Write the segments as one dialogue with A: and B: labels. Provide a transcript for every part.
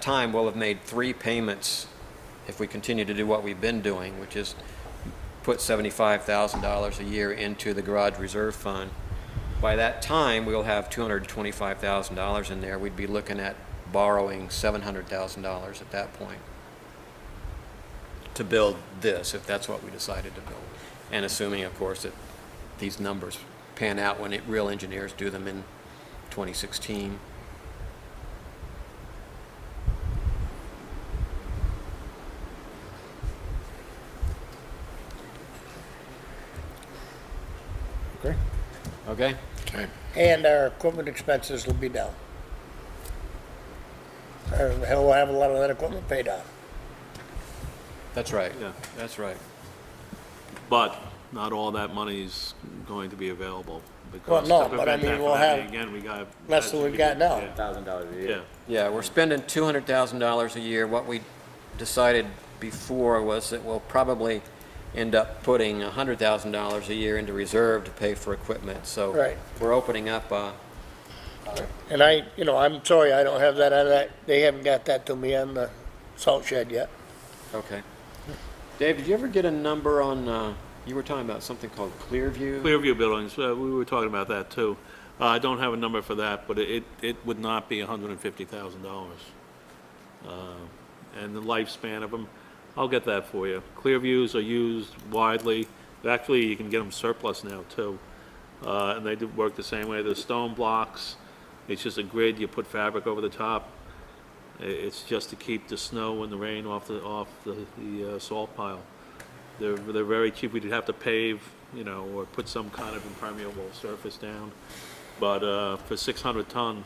A: time, we'll have made three payments if we continue to do what we've been doing, which is put $75,000 a year into the garage reserve fund. By that time, we'll have $225,000 in there. We'd be looking at borrowing $700,000 at that point to build this, if that's what we decided to build. And assuming, of course, that these numbers pan out when it- real engineers do them in 2016.
B: Okay.
A: Okay?
C: Okay.
B: And our equipment expenses will be down. Or hell, we'll have a lot of that equipment paid off.
A: That's right.
D: Yeah.
A: That's right.
D: But not all that money is going to be available because.
B: Well, no, but I
D: to prevent
B: mean,
D: that from
B: we'll
D: happening
B: have
D: Again, we got.
B: less than we've got now.
D: Yeah,
C: Thousand dollars a
D: Yeah,
C: year.
A: Yeah, we're spending two hundred thousand dollars a year. What we decided before was that we'll probably end up putting a hundred thousand dollars a year into reserve to pay for equipment, so.
B: Right.
A: We're opening up, uh,
B: And I, you know, I'm sorry, I don't have that on that, they haven't got that to me on the salt shed yet.
A: okay. Dave, did you ever get a number on, uh, you were talking about something called Clearview?
D: Clearview Buildings, uh, we were talking about that too. Uh, I don't have a number for that, but it, it would not be hundred and fifty thousand dollars. Uh, And the lifespan of them, I'll get that for you. Clearviews are used widely. Actually, you can get them surplus now too. Uh, and they do work the same way. They're stone blocks. It's just a grid. You put fabric over the top. I- It's just to keep the snow and the rain off the, off the, the uh, salt pile. They're, they're very cheap. We'd have to pave, you know, or put some kind of impermeable surface down. But, uh, for six hundred ton,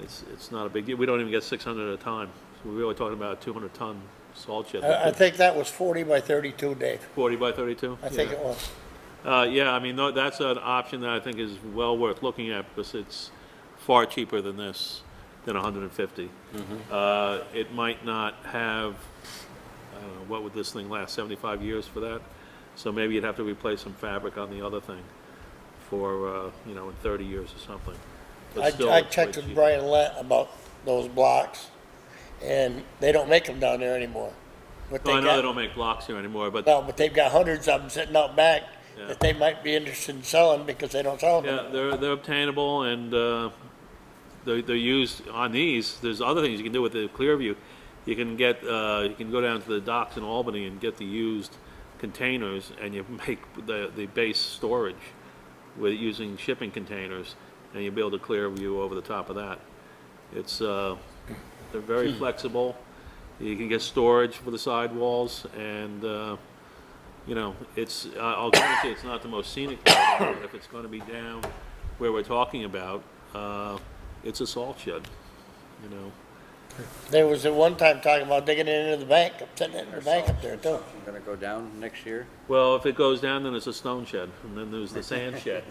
D: it's, it's not a big deal. We don't even get six hundred at a time. So We're really talking about a two hundred ton salt shed.
B: I, I think that was forty by thirty-two, Dave.
D: Forty by thirty-two?
B: I think it was.
D: Uh, yeah, I mean, tho- that's an option that I think is well worth looking at because it's far cheaper than this, than 150. Uh, it might not have, I don't know, what would this thing last, 75 years for that? So maybe you'd have to replace some fabric on the other thing for, uh, you know, in 30 years or something. But
B: I,
D: still,
B: I
D: it's way
B: checked with
D: cheaper.
B: Brian Lett about those blocks, and they don't make them down there anymore. What
D: No, Oh, I know
B: got-
D: they don't make blocks here anymore, but
B: No, but they've got hundreds of them sitting out back
D: Yeah.
B: that they might be interested in selling because they don't sell them.
D: Yeah, they're, they're obtainable and, uh, they're, they're used on these. There's other things you can do with the Clearview. You can get, uh, you can go down to the docks in Albany and get the used containers and you make the, the base storage with, using shipping containers and you build a Clearview over the top of that. It's, uh, they're very flexible. You can get storage for the sidewalls and, uh, you know, it's, I- I'll grant you, it's not the most scenic part, of it, but if it's gonna be down where we're talking about, uh, it's a salt shed, you know?
B: There was at one time talking about digging it into the bank, up- sitting it in the bank up there too.
C: Gonna go down next year.
D: Well, if it goes down, then it's a stone shed, and then there's the sand shed.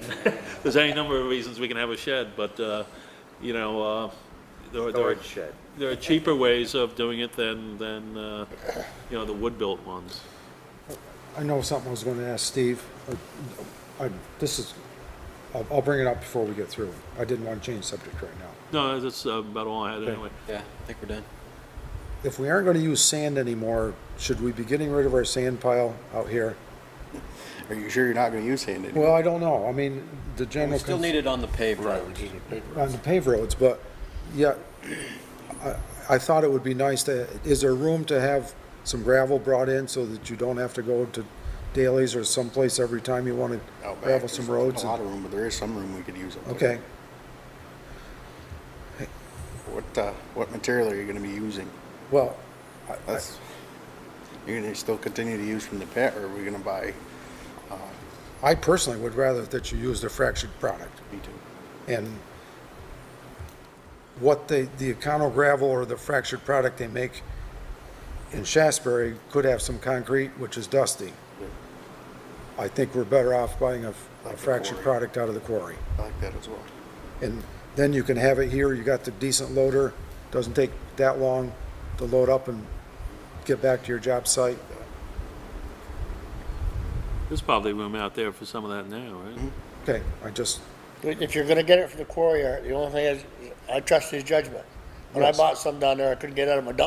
D: There's any number of reasons we can have a shed, but, uh, you know, uh, there are, there are,
C: Storage shed.
D: there are cheaper ways of doing it than, than, uh, you know, the wood-built ones.
E: I know something I was going to ask Steve. I, I- this is, I'll, I'll bring it up before we get through. I didn't want to change subject right now.
D: No, that's about all I had anyway.
A: Yeah, I think we're done.
E: If we aren't going to use sand anymore, should we be getting rid of our sand pile out here?
F: Are you sure you're not gonna use hand anymore?
E: Well, I don't know. I mean, the general.
A: We still need it on the paved roads.
E: on the paved roads, but, yeah, I, I thought it would be nice to, is there room to have some gravel brought in so that you don't have to go to Daley's or someplace every time you want to
F: Out back,
E: gravel
F: there's
E: some roads?
F: Oh, A lot of room, but there is some room we could use. up there.
E: Okay,
F: What, uh, what material are you gonna be using?
E: well, I- I,
F: That's, you're gonna still continue to use from the pit, or are we gonna buy
E: I personally would rather that you use the fractured product.
F: B two?
E: And what the, the Econo gravel or the fractured product they make in Shasberry could have some concrete, which is dusty. I think we're better off buying a f- a
F: Like the
E: fractured
F: quarry.
E: product out of the quarry.
F: I like that as well.
E: And then you can have it here, you got the decent loader, doesn't take that long to load up and get back to your job site.
D: There's probably room out there for some of that now, right?
E: Okay, I just,
B: If you're gonna get it from the quarry, the only thing is, I trust his judgment. When I
E: Yes.
B: bought some down there, I couldn't get out of my dump